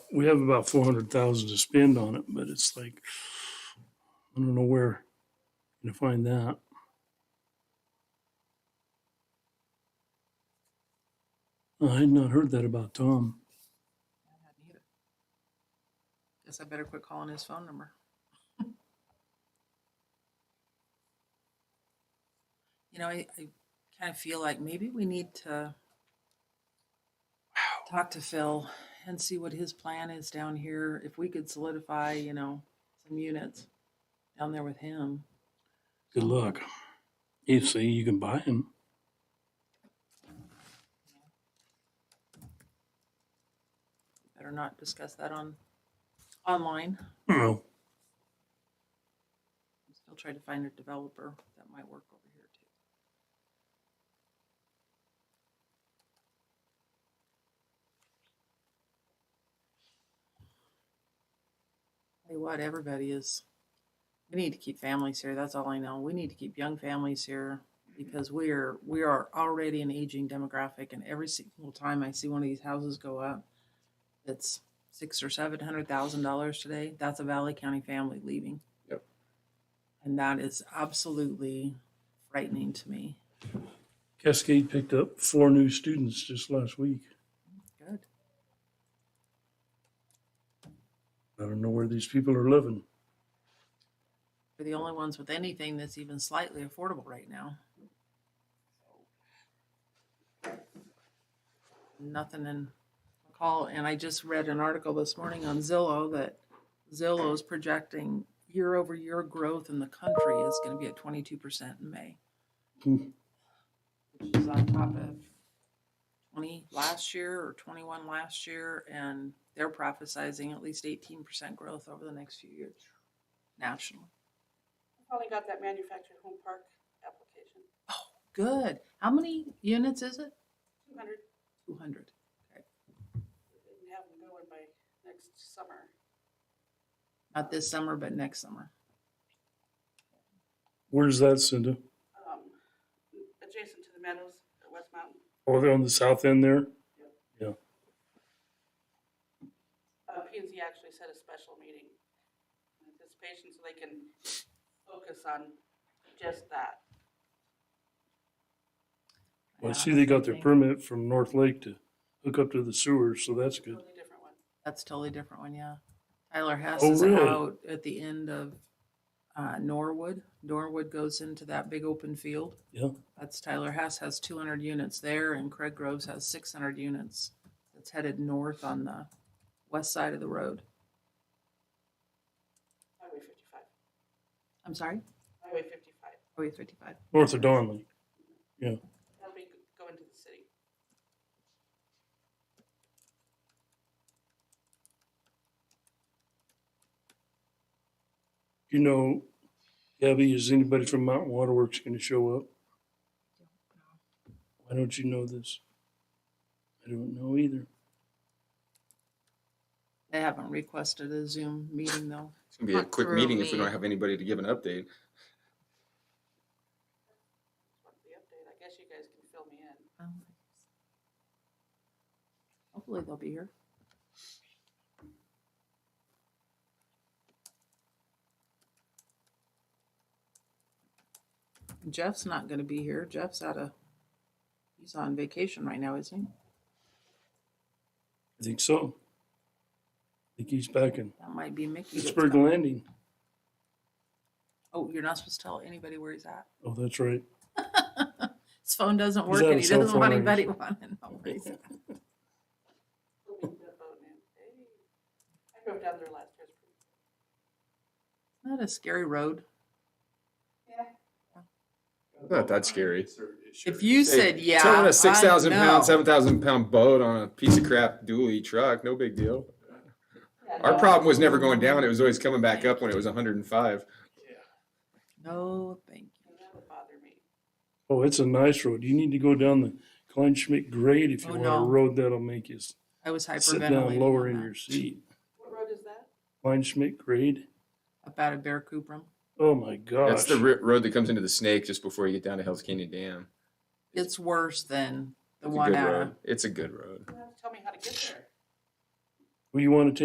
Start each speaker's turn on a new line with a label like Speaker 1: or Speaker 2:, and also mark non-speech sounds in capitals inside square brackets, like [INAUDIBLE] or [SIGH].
Speaker 1: we have about four hundred thousand to spend on it, but it's like, I don't know where to find that. I had not heard that about Tom.
Speaker 2: I hadn't either. Guess I better quit calling his phone number. [LAUGHS] You know, I, I kind of feel like maybe we need to talk to Phil and see what his plan is down here. If we could solidify, you know, some units down there with him.
Speaker 1: Good luck. You see, you can buy him.
Speaker 2: Better not discuss that on, online.
Speaker 1: No,
Speaker 2: I'm still trying to find a developer that might work over here too. Tell you what, everybody is, we need to keep families here, that's all I know. We need to keep young families here because we're, we are already an aging demographic and every single time I see one of these houses go up, it's six or seven hundred thousand dollars today, that's a Valley County family leaving. And that is absolutely frightening to me.
Speaker 1: Cascade picked up four new students just last week.
Speaker 2: Good.
Speaker 1: I don't know where these people are living.
Speaker 2: They're the only ones with anything that's even slightly affordable right now. Nothing in McCall. And I just read an article this morning on Zillow that Zillow is projecting year over year growth in the country is going to be at 22% in May,
Speaker 1: Hmm.
Speaker 2: which is on top of 20 last year or 21 last year. And they're prophesizing at least 18% growth over the next few years nationally.
Speaker 3: I finally got that manufactured home park application,
Speaker 2: Good. How many units is it?
Speaker 3: two hundred,
Speaker 2: Two hundred.
Speaker 3: and have them going by next summer.
Speaker 2: Not this summer, but next summer.
Speaker 1: Where's that, Cinda?
Speaker 3: Um, adjacent to the meadows at West Mountain.
Speaker 1: Oh, they're on the south end there?
Speaker 3: Uh, P and Z actually set a special meeting in anticipation so they can focus on just that.
Speaker 1: Well, I
Speaker 2: Yeah,
Speaker 1: see they got their
Speaker 2: think
Speaker 1: permit from North Lake to hook up to the sewer, so that's good.
Speaker 3: Totally different one.
Speaker 2: That's totally different one, yeah. Tyler Hess
Speaker 1: Oh,
Speaker 2: is
Speaker 1: really?
Speaker 2: out at the end of uh, Norwood. Norwood goes into that big open field.
Speaker 1: Yeah.
Speaker 2: That's Tyler Hess has two hundred units there and Craig Groves has six hundred units. It's headed north on the west side of the road.
Speaker 3: Highway fifty-five,
Speaker 2: I'm sorry?
Speaker 3: Highway fifty-five.
Speaker 2: Oh, you fifty-five.
Speaker 1: North of Donley.
Speaker 3: That'll be g- going to the city.
Speaker 1: You know, Gabby, is anybody from Mountain Waterworks going to show up? Why don't you know this? I don't know either.
Speaker 2: They haven't requested a Zoom meeting though.
Speaker 4: It's gonna be a
Speaker 5: Not
Speaker 4: quick
Speaker 5: through
Speaker 4: meeting if we
Speaker 5: me.
Speaker 4: don't have anybody to give an update.
Speaker 3: Just wanted the update. I guess you guys can fill me in.
Speaker 2: Um, Hopefully they'll be here. Jeff's not gonna be here. Jeff's out of, he's on vacation right now, isn't he?
Speaker 1: I think so. I think he's back in
Speaker 2: That might be Mickey. that's
Speaker 1: Pittsburgh
Speaker 2: coming.
Speaker 1: Landing.
Speaker 2: Oh, you're not supposed to tell anybody where he's at.
Speaker 1: Oh, that's right.
Speaker 2: His phone doesn't work
Speaker 1: out
Speaker 2: and
Speaker 1: of
Speaker 2: he
Speaker 1: cell
Speaker 2: doesn't want
Speaker 1: phone range.
Speaker 2: anybody [LAUGHS] wanting to know where he's at.
Speaker 3: We'll be in the boat now. Hey. I drove down there last year. It's pretty-
Speaker 2: Isn't that a scary road?
Speaker 3: Yeah.
Speaker 4: Not that scary.
Speaker 2: If you said, yeah.
Speaker 4: Towing a six
Speaker 2: I
Speaker 4: thousand
Speaker 2: know."
Speaker 4: pound, seven thousand pound boat on a piece of crap dually truck, no big deal. Our
Speaker 3: no,
Speaker 4: problem was never going down; it was always coming back up when it was one hundred and five.
Speaker 2: No, thank you.
Speaker 3: That would bother me.
Speaker 1: Oh, it's a nice road. You need to go down the Klein Schmidt grade if you
Speaker 2: Oh,
Speaker 1: want
Speaker 2: no.
Speaker 1: a road that'll make you s-
Speaker 2: I was
Speaker 1: sit down
Speaker 2: hyperventilating.
Speaker 1: lower
Speaker 2: on
Speaker 1: in
Speaker 2: that.
Speaker 1: your seat.
Speaker 3: What road is that?
Speaker 1: Klein Schmidt grade.
Speaker 2: Up out of Bear Cuprum.
Speaker 1: Oh my gosh.
Speaker 4: That's the ri road that comes into the snake just before you get down to Hell's Canyon Dam.
Speaker 2: It's worse than the
Speaker 4: It's a
Speaker 2: one uh,
Speaker 4: good
Speaker 2: out of
Speaker 4: road. It's a good road.
Speaker 3: You have to tell me how to get there.
Speaker 1: Well, you want to take